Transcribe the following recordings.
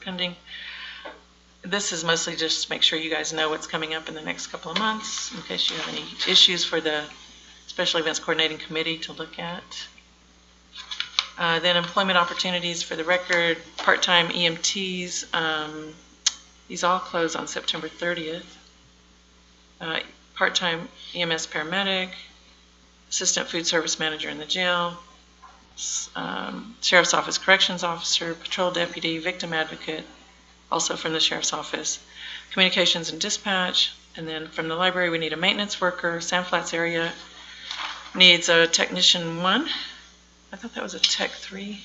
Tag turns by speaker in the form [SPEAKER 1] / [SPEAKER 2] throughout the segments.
[SPEAKER 1] pending. This is mostly just to make sure you guys know what's coming up in the next couple of months, in case you have any issues for the Special Events Coordinating Committee to look at. Uh, Then employment opportunities for the record, part-time EMTs, um, these all close on September 30th. Uh, Part-time EMS paramedic, assistant food service manager in the jail, s- um, sheriff's office corrections officer, patrol deputy, victim advocate, also from the sheriff's office, communications and dispatch, and then from the library, we need a maintenance worker. Sand Flats area needs a technician one. I thought that was a tech three.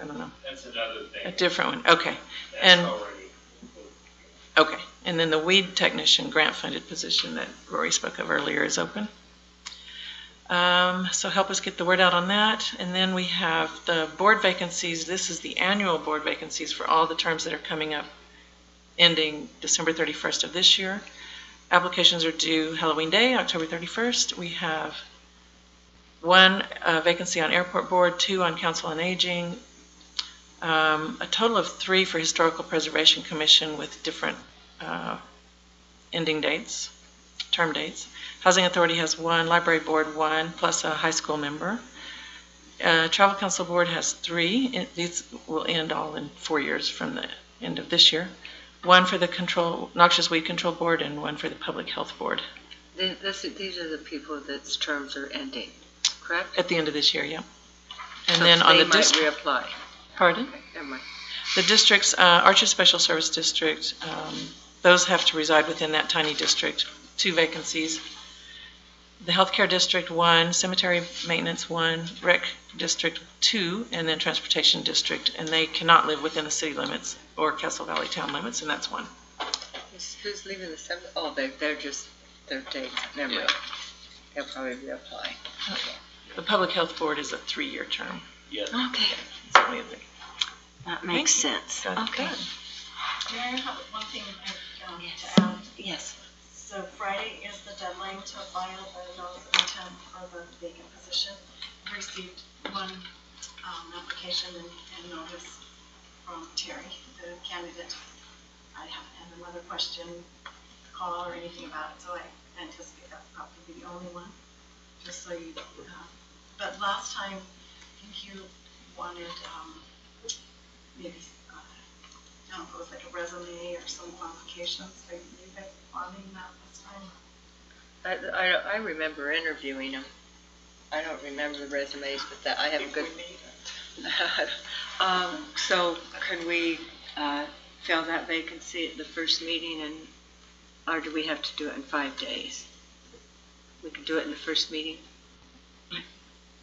[SPEAKER 1] I don't know,
[SPEAKER 2] That's another
[SPEAKER 1] a
[SPEAKER 2] thing.
[SPEAKER 1] different one. Okay,
[SPEAKER 2] That's
[SPEAKER 1] and-
[SPEAKER 2] already included.
[SPEAKER 1] okay. And then the weed technician grant funded position that Rory spoke of earlier is open. Um, so help us get the word out on that. And then we have the board vacancies. This is the annual board vacancies for all the terms that are coming up ending December 31st of this year. Applications are due Halloween Day, October 31st. We have one uh, vacancy on Airport Board, two on Council on Aging, um, a total of three for Historical Preservation Commission with different uh, ending dates, term dates. Housing Authority has one, Library Board one, plus a high school member. Uh, Travel Council Board has three. It- These will end all in four years from the end of this year. One for the control, Noxious Weed Control Board and one for the Public Health Board
[SPEAKER 3] Th- This, these are the people that's terms are ending, correct?
[SPEAKER 1] at the end of this year, yeah. And then on the,
[SPEAKER 3] So
[SPEAKER 1] dis-
[SPEAKER 3] They might reapply.
[SPEAKER 1] pardon?
[SPEAKER 3] Never mind.
[SPEAKER 1] The districts, uh, Archer Special Service District, um, those have to reside within that tiny district, two vacancies. The Healthcare District, one, Cemetery Maintenance, one, Rec District, two, and then Transportation District, and they cannot live within the city limits or Castle Valley town limits, and that's one.
[SPEAKER 3] Who's- Who's leaving the seventh? Oh, they're, they're just, they're dates, never mind. They'll probably reapply.
[SPEAKER 1] The Public Health Board is a three-year term.
[SPEAKER 2] Yeah,
[SPEAKER 3] Okay,
[SPEAKER 1] It's only a thing.
[SPEAKER 3] that
[SPEAKER 1] makes
[SPEAKER 3] sense.
[SPEAKER 1] Got it.
[SPEAKER 4] Mayor, I have one thing I, um, to add.
[SPEAKER 3] Yes.
[SPEAKER 4] So Friday is the deadline to apply the notice of intent for the vacant position. We Received one, um, application and, and notice from Terry, the candidate. I haven't had another question, call or anything about it, so I anticipate that's probably the only one, just so you, uh, but last time, I think you wanted, um, maybe, uh, I don't know, it was like a resume or some qualifications, are you guys wanting that this time?
[SPEAKER 3] I, I, I remember interviewing them. I don't remember the resumes, but that, I have a good.
[SPEAKER 4] If we need it.
[SPEAKER 3] Um, so can we, uh, fill that vacancy at the first meeting and, or do we have to do it in five days? We can do it in the first meeting?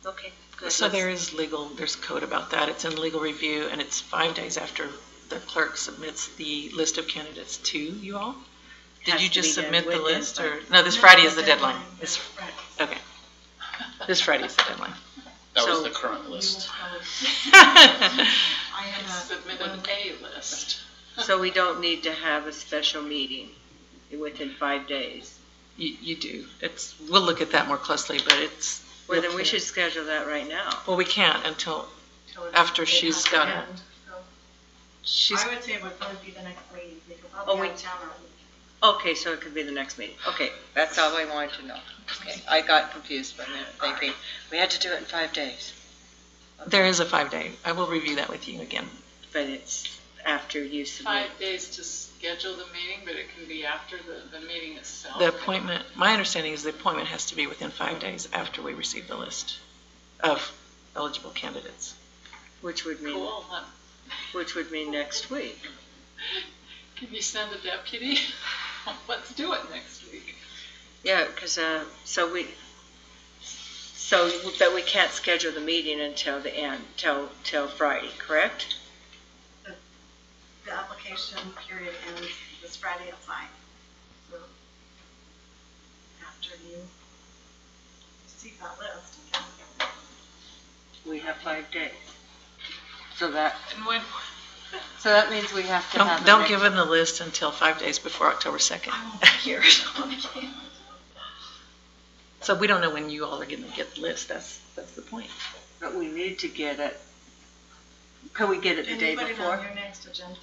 [SPEAKER 3] Okay, good.
[SPEAKER 1] So there is legal, there's code about that. It's in legal review, and it's five days after the clerk submits the list of candidates to you all. Did
[SPEAKER 3] Has
[SPEAKER 1] you
[SPEAKER 3] to be
[SPEAKER 1] just
[SPEAKER 3] done
[SPEAKER 1] submit the
[SPEAKER 3] with them
[SPEAKER 1] list,
[SPEAKER 3] by-
[SPEAKER 1] or, no, this Friday is the
[SPEAKER 4] No,
[SPEAKER 1] deadline.
[SPEAKER 4] This
[SPEAKER 1] This,
[SPEAKER 4] Friday.
[SPEAKER 1] okay. This Friday is the deadline.
[SPEAKER 2] that was
[SPEAKER 3] So-
[SPEAKER 2] the current
[SPEAKER 4] You will
[SPEAKER 2] list.
[SPEAKER 4] probably- I am not.
[SPEAKER 5] Submitted a list.
[SPEAKER 3] So we don't need to have a special meeting within five days?
[SPEAKER 1] You, you do. It's, we'll look at that more closely, but it's.
[SPEAKER 3] Well, then we should schedule that right now.
[SPEAKER 1] Well, we can't until,
[SPEAKER 4] till it's-
[SPEAKER 1] after
[SPEAKER 4] it
[SPEAKER 1] she's
[SPEAKER 4] has to
[SPEAKER 1] got it.
[SPEAKER 4] end, so
[SPEAKER 1] she's,
[SPEAKER 4] I would say it would probably be the next meeting, because I'll
[SPEAKER 3] Oh,
[SPEAKER 4] be out
[SPEAKER 3] we-
[SPEAKER 4] of town. all week.
[SPEAKER 3] Okay, so it could be the next meeting. Okay, that's all I wanted to know. Okay, I got confused for a minute, thinking we had to do it in five days.
[SPEAKER 1] there is a five-day. I will review that with you again.
[SPEAKER 3] But it's after you submit.
[SPEAKER 5] Five days to schedule the meeting, but it can be after the, the meeting itself.
[SPEAKER 1] The appointment, my understanding is the appointment has to be within five days after we receive the list of eligible candidates.
[SPEAKER 3] Which would mean,
[SPEAKER 5] Cool, huh?
[SPEAKER 3] which would mean next week.
[SPEAKER 5] Can you send a deputy? Let's do it next week.
[SPEAKER 3] Yeah, because, uh, so we, so, but we can't schedule the meeting until the end, till, till Friday, correct?
[SPEAKER 4] The application period ends this Friday at five, so after you receive that list, you can.
[SPEAKER 3] We have five days. So that,
[SPEAKER 5] And when,
[SPEAKER 3] so that means we have to have.
[SPEAKER 1] Don't,
[SPEAKER 3] a
[SPEAKER 1] don't
[SPEAKER 3] next- Oh.
[SPEAKER 1] give them the list until five days before October 2nd.
[SPEAKER 4] Here, so I can't.
[SPEAKER 1] So we don't know when you all are going to get the list. That's, that's the point.
[SPEAKER 3] But we need to get it. Can we get it the day
[SPEAKER 4] Can you put it on
[SPEAKER 3] before?
[SPEAKER 4] your next agenda?